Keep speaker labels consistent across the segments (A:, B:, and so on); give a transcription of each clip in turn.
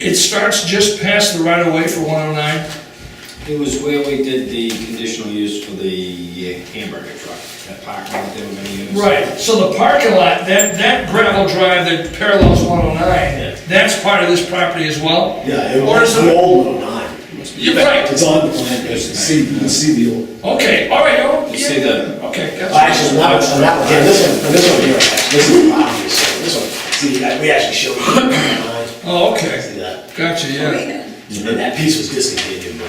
A: It starts just past the right of way for one oh nine.
B: It was where we did the conditional use for the uh, hamburger truck, that parking lot they were gonna use.
A: Right, so the parking lot, that, that gravel drive that parallels one oh nine, that's part of this property as well?
C: Yeah, it
A: Or is
C: was
A: it-
C: the old one, nine.
A: You're right,
C: It's on the plan, you can see, you can see the old.
A: okay, all right, oh,
B: You see
A: yeah,
B: the,
A: okay,
C: Well, Actually,
A: gotcha.
C: not, not, yeah, this one, this one here, this is obvious, so this one, see, that- we actually showed you. nine,
A: Oh,
C: See
A: okay,
C: that?
A: gotcha, yeah,
C: And then that piece was discontinued, but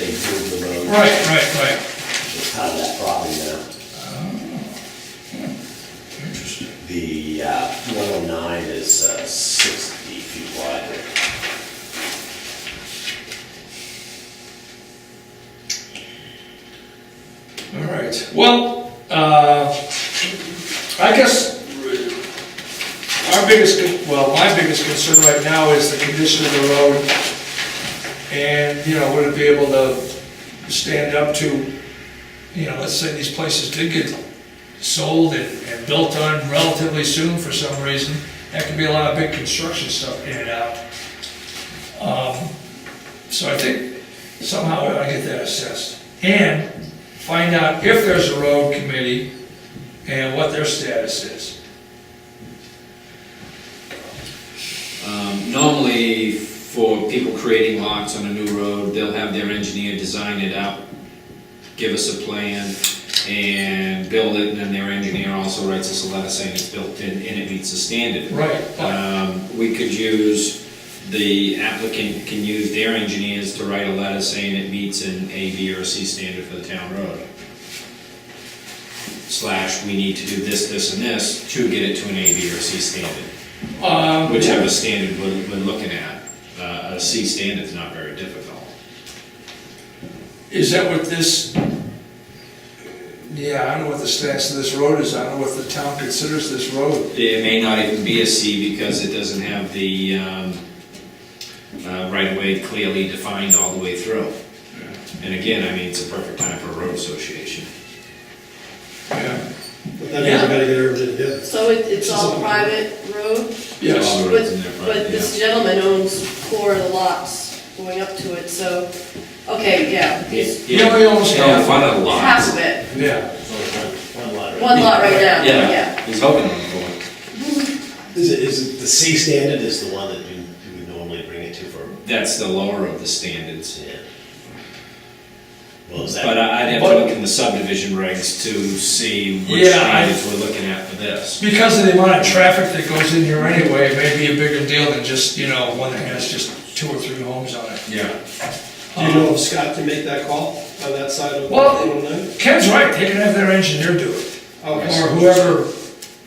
C: they moved the road.
A: right, right, right,
C: It's part of that property now.
A: interesting.
C: The uh, 109 is uh, 60 feet wide.
A: All right, well, uh, I guess our biggest, con- well, my biggest concern right now is the condition of the road. And, you know, would it be able to stand up to, you know, let's say these places did get sold and, and built on relatively soon for some reason. That could be a lot of big construction stuff in and out. Um, So I think somehow I get that assessed. And find out if there's a road committee and what their status is.
B: um, normally for people creating lots on a new road, they'll have their engineer design it up, give us a plan, and build it, and then their engineer also writes us a letter saying it's built in and it meets the standard.
A: Right.
B: Um, We could use, the applicant can use their engineers to write a letter saying it meets an A, B, or C standard for the town road. Slash, we need to do this, this, and this to get it to an A, B, or C standard,
A: Um,
B: whichever standard we're, we're looking at. Uh, A C standard's not very difficult.
A: Is that what this, yeah, I don't know what the status of this road is, I don't know what the town considers this road.
B: It may not even be a C because it doesn't have the um, uh, right-of-way clearly defined all the way through. And again, I mean, it's a perfect time for a road association.
A: Yeah,
D: But that means we gotta get everything together.
E: So it, it's all private road,
A: Yes,
E: but, but this gentleman owns four of the lots going up to it, so, okay, yeah, he's
A: You know, we almost got-
B: One of the lots.
E: half of it,
A: yeah.
C: One lot, right?
E: one lot right now, yeah.
B: He's hoping for
C: Is it, is it, the C standard is the one that you you would normally bring it to for,
B: it. That's the lower of the standards.
C: yeah. Well, is
B: But uh,
C: that,
B: I- I'd have to look in the subdivision regs to see which
A: Yeah, I-
B: standards we're looking at for this.
A: Because of the amount of traffic that goes in here anyway, it may be a bigger deal than just, you know, one that has just two or three homes on it.
B: Yeah.
D: Do you know if Scott can make that call on that side of the
A: Well-
D: 109?
A: Ken's right, they can have their engineer do it, or
D: Okay.
A: whoever,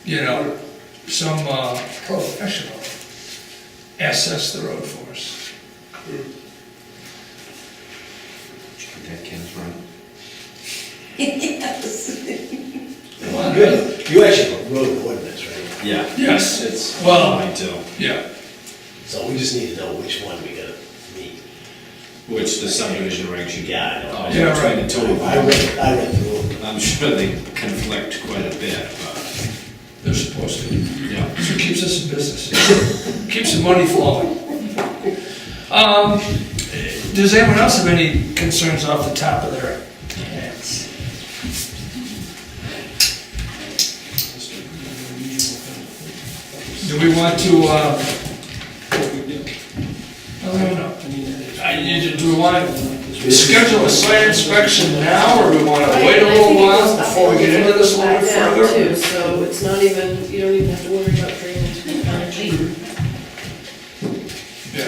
A: you know, some uh, professional assess the road for us.
B: That Ken's right.
C: you had- you actually have a road ordinance, right?
B: Yeah.
A: Yes.
B: It's,
A: Well-
B: I do.
A: Yeah,
C: So we just need to know which one we gotta meet.
B: Which the subdivision regs you
C: Yeah, I know.
B: got.
A: Yeah, right.
B: The total.
C: I read, I read through them.
B: I'm sure they conflict quite a bit, but,
A: they're supposed to.
B: yeah.
A: That's what keeps us in business, keeps the money flowing. Um, Does anyone else have any concerns off the top of their heads? Do we want to, uh, I don't know. I need to- Do we want to schedule a site inspection now, or do we want to wait a little while before we get into this a little bit
E: Back
A: further?
E: down, too, So it's not even, you don't even have to worry about drainage.
A: Yeah.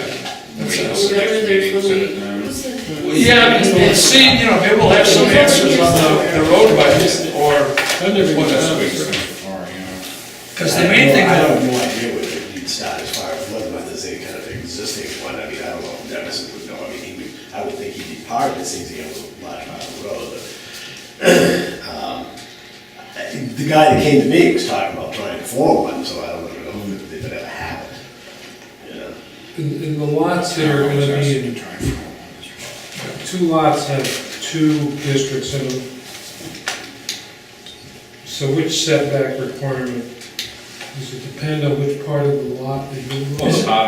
A: That's
E: Whatever
A: it.
E: there's when we- what's the-
A: Yeah, we'll see, you know, maybe we'll have some answers on the, the road budget, or what else. Because the main thing,
C: I
A: though,
C: have no idea where it would start as far as whether there's any kind of existing one, I mean, I don't know, if Dennis would know, I mean, he would, I would think he'd be part of it, since he owns a lot out of the road, but. um, I- um, The guy that came to me was talking about trying to form one, so I don't know if it would ever happen, you know?
F: In, in the lots that are gonna be in, two lots have two districts in them. So which setback requirement, does it depend on which part of the lot that you
B: Well, it's part